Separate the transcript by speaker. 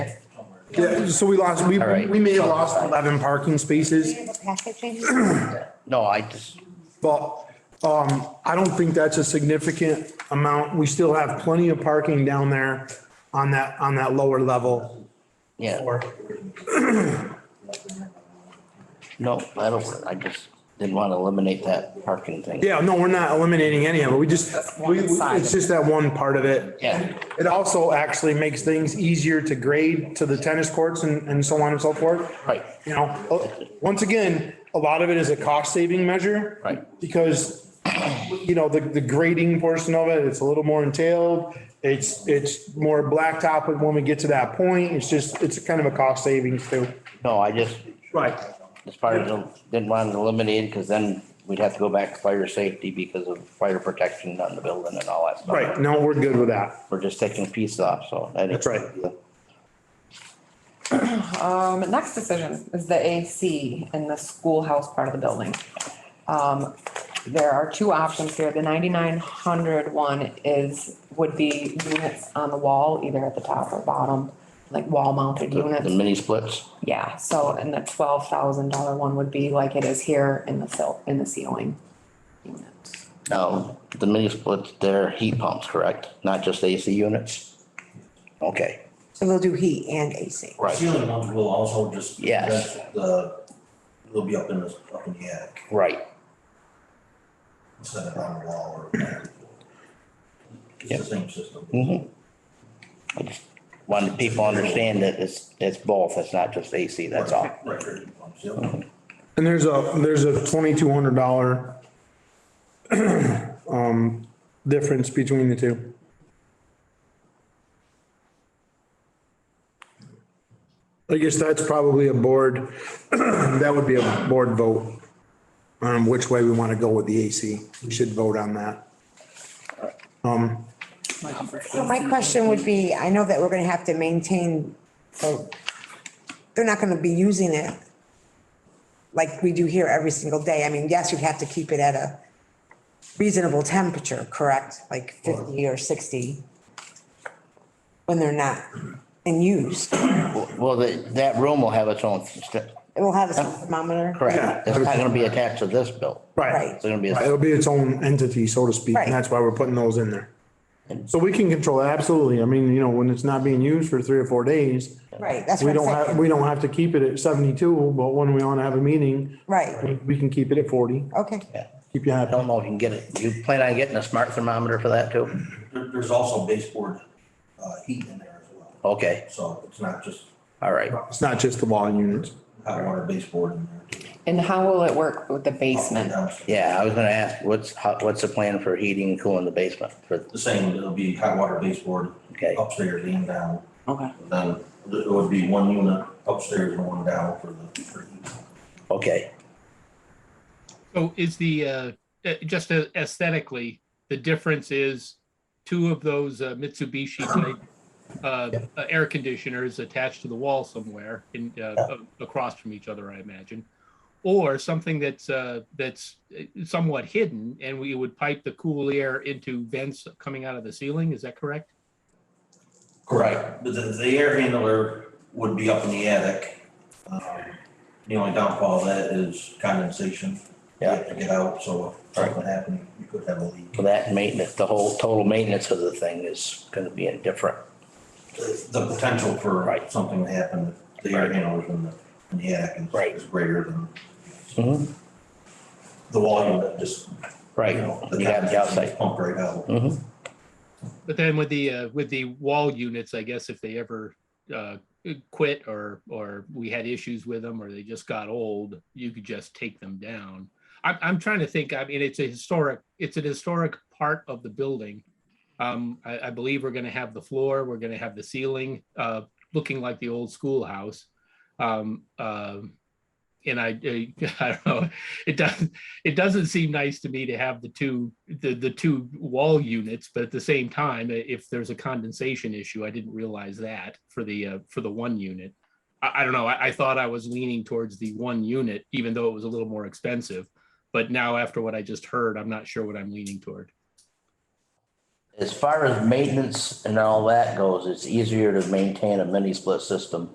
Speaker 1: Yeah, so we lost, we,
Speaker 2: All right.
Speaker 1: we may have lost 11 parking spaces,
Speaker 3: have a package in?
Speaker 2: No, I just,
Speaker 1: but, um, I don't think that's a significant amount. We still have plenty of parking down there on that, on that lower level.
Speaker 2: yeah,
Speaker 1: Or,
Speaker 2: no, I don't, I just didn't want to eliminate that parking thing.
Speaker 1: yeah, no, we're not eliminating any of it. We just, we, we- it's just that one part of it.
Speaker 2: Yeah,
Speaker 1: It also actually makes things easier to grade to the tennis courts and, and so on and so forth.
Speaker 2: Right.
Speaker 1: You know, uh, once again, a lot of it is a cost saving measure.
Speaker 2: Right.
Speaker 1: Because, you know, the, the grading portion of it, it's a little more entailed. It's, it's more blacktop but when we get to that point. It's just, it's kind of a cost savings too.
Speaker 2: no, I just,
Speaker 1: Right.
Speaker 2: as far as, the- didn't want to eliminate because then we'd have to go back to fire safety because of fire protection on the building and all that stuff.
Speaker 1: Right. No, we're good with that.
Speaker 2: We're just taking pieces off, so. that is-
Speaker 1: That's right.
Speaker 4: Um, next decision is the AC in the schoolhouse part of the building. Um, there are two options here. The ninety-nine hundred one is, would be units on the wall, either at the top or bottom, like wall mounted
Speaker 2: The
Speaker 4: units.
Speaker 2: mini splits,
Speaker 4: Yeah, so, and the twelve thousand dollar one would be like it is here in the sil- in the ceiling. units.
Speaker 2: now, the mini splits, they're heat pumps, correct? Not just AC units? Okay,
Speaker 3: So they'll do heat and AC.
Speaker 2: right,
Speaker 5: Ceiling ones will also just.
Speaker 2: Yes.
Speaker 5: The, they'll be up in the, up in the attic
Speaker 2: right.
Speaker 5: instead of on the wall or. It's the same system.
Speaker 2: Mhm. I just wanted people to understand that it's, it's both, it's not just AC, that's all.
Speaker 5: Right, right, pumps, yep.
Speaker 1: And there's a, there's a $2,200 um, difference between the two. I guess that's probably a board, that would be a board vote on which way we want to go with the AC. We should vote on that.
Speaker 3: So my question would be, I know that we're gonna have to maintain, so they're not gonna be using it like we do here every single day. I mean, yes, you'd have to keep it at a reasonable temperature, correct? Like fifty or sixty when they're not in use. It
Speaker 2: Well, that, that room will have its own, st-
Speaker 3: will have a thermometer.
Speaker 2: correct, it's not gonna be attached to this bill.
Speaker 1: Right.
Speaker 3: Right.
Speaker 2: It's gonna be,
Speaker 1: It'll
Speaker 2: a-
Speaker 1: be its own entity, so to speak, and that's why we're putting those in there. So we can control it, absolutely. I mean, you know, when it's not being used for three or four days,
Speaker 3: Right, that's
Speaker 1: we
Speaker 3: what
Speaker 1: don't
Speaker 3: I'm
Speaker 1: have,
Speaker 3: saying.
Speaker 1: we don't have to keep it at seventy-two, but when we wanna have a meeting,
Speaker 3: Right,
Speaker 1: we- we can keep it at forty,
Speaker 3: okay.
Speaker 2: yeah.
Speaker 1: keep you
Speaker 2: I
Speaker 1: happy.
Speaker 2: don't know if you can get it, you plan on getting a smart thermometer for that too?
Speaker 5: There, there's also baseboard, uh, heat in there as well.
Speaker 2: Okay,
Speaker 5: So it's not just
Speaker 2: all right,
Speaker 1: It's not just the wall units.
Speaker 5: hot water baseboard in there. too.
Speaker 4: And how will it work with the basement?
Speaker 5: Downstairs.
Speaker 2: yeah, I was gonna ask, what's, how- what's the plan for heating and cooling the basement for,
Speaker 5: The same, it'll be hot water baseboard
Speaker 2: okay,
Speaker 5: upstairs and down.
Speaker 4: Okay.
Speaker 5: Then it would be one unit upstairs and one down for the, for heat.
Speaker 2: okay,
Speaker 6: So is the, uh, uh, just a- aesthetically, the difference is two of those uh, Mitsubishi type uh, uh, air conditioners attached to the wall somewhere in, uh, a- across from each other, I imagine. Or something that's, uh, that's somewhat hidden and we would pipe the cool air into vents coming out of the ceiling, is that correct?
Speaker 5: Correct, but the, the air handler would be up in the attic. Um, The only downfall of that is condensation. You have To get out, so if something happened, you could have a leak.
Speaker 2: for that maintenance, the whole total maintenance of the thing is gonna be a different.
Speaker 5: The potential for
Speaker 2: Right.
Speaker 5: something to happen, if the air
Speaker 2: Right.
Speaker 5: handlers in the, in the attic is-
Speaker 2: Right.
Speaker 5: is greater than
Speaker 2: Mhm.
Speaker 5: the volume that just,
Speaker 2: Right,
Speaker 5: you know.
Speaker 2: you have the
Speaker 5: condensation
Speaker 2: outside.
Speaker 5: Pump right out.
Speaker 2: Mhm.
Speaker 6: But then with the, uh, with the wall units, I guess if they ever, uh, quit or, or we had issues with them or they just got old, you could just take them down. I'm, I'm trying to think, I mean, it's a historic, it's an historic part of the building. Um, I, I believe we're gonna have the floor, we're gonna have the ceiling, uh, looking like the old schoolhouse. Um, um, and I, I don't know, it doesn't, it doesn't seem nice to me to have the two, the, the two wall units, but at the same time, i- if there's a condensation issue, I didn't realize that for the, uh, for the one unit. I, I don't know, I, I thought I was leaning towards the one unit, even though it was a little more expensive. But now after what I just heard, I'm not sure what I'm leaning toward.
Speaker 2: As far as maintenance and all that goes, it's easier to maintain a mini split system